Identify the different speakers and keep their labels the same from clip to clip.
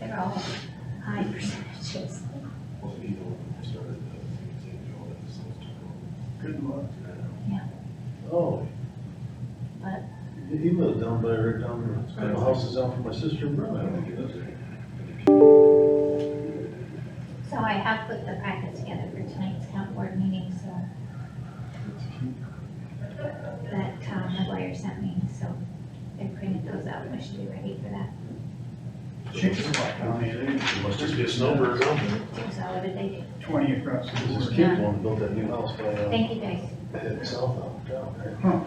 Speaker 1: they're all high percentages.
Speaker 2: Well, you know, when we started the thing, you know, that stuff
Speaker 3: Good luck.
Speaker 2: Oh.
Speaker 1: What?
Speaker 2: He lives down by, right down, there. the house is down from my sister and brother, I don't think he lives there.
Speaker 1: So I have put the packet together for tonight's town board meeting, so. That Tom McGuire sent me, so I printed those out, and I should be ready for that.
Speaker 3: Chicks are like, I mean,
Speaker 2: There must just be a snowbird down there.
Speaker 1: So what did they do?
Speaker 3: they- twenty across the
Speaker 2: This
Speaker 3: board.
Speaker 2: kid wanted to build that new house by, uh,
Speaker 1: Thank you guys.
Speaker 2: heading south out down there.
Speaker 3: Huh.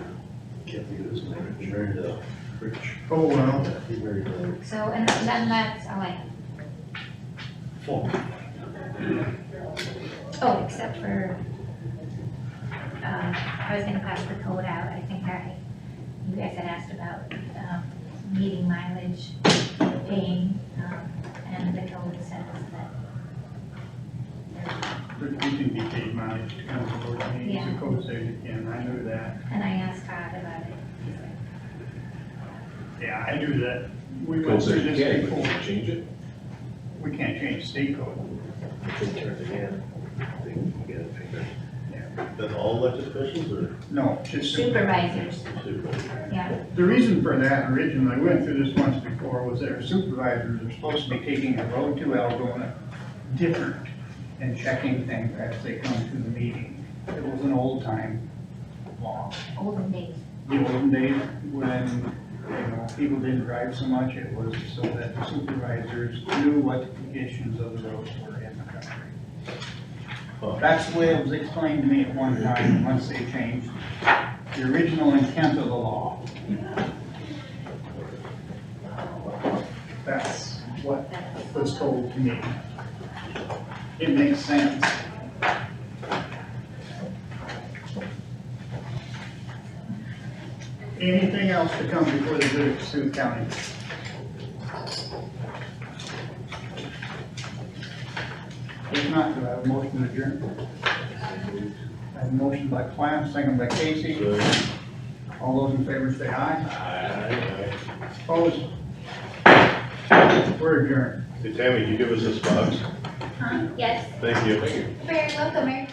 Speaker 2: Can't think of his name, he married, uh, Rich,
Speaker 3: Oh, well,
Speaker 2: he married, uh,
Speaker 1: So, and then that's all I have.
Speaker 2: Fulton.
Speaker 1: Oh, except for, uh, I was gonna pass the code out, I think I, you guys had asked about, um, meeting mileage, paying, um, and the code says that,
Speaker 3: but we can be paid mileage to come to board meetings,
Speaker 1: Yeah.
Speaker 3: the code says you can, I knew that.
Speaker 1: and I asked Todd about it. He's like,
Speaker 3: Yeah, I knew that. We
Speaker 4: Code
Speaker 3: went
Speaker 4: says
Speaker 3: through
Speaker 4: you
Speaker 3: this
Speaker 4: can, but you
Speaker 3: before.
Speaker 4: can change it.
Speaker 3: We can't change state code.
Speaker 4: You can turn it in. They can get it figured.
Speaker 2: Then all elected officials or
Speaker 3: No, just.
Speaker 1: Supervisors,
Speaker 2: supervisors?
Speaker 1: yeah,
Speaker 3: The reason for that originally, we went through this once before, was that our supervisors are supposed to be taking the road to Algona different and checking things as they come to the meeting. It was an old time law.
Speaker 1: olden days,
Speaker 3: The olden days when, you know, people didn't drive so much, it was so that the supervisors knew what the conditions of the roads were in the country. That's the way it was explained to me at one time, once they changed the original intent of the law. That's what
Speaker 1: that's,
Speaker 3: was told to me. It makes sense. Anything else to come before the good of Sioux County? If not, do I have a motion to adjourn? I have a motion by Clamp, second by Casey. All those in favor say aye. Opposed? We're adjourned.
Speaker 2: Hey Tammy, you give us this box?
Speaker 1: huh, yes,
Speaker 2: Thank you. Thank you.
Speaker 1: very welcome, Mary.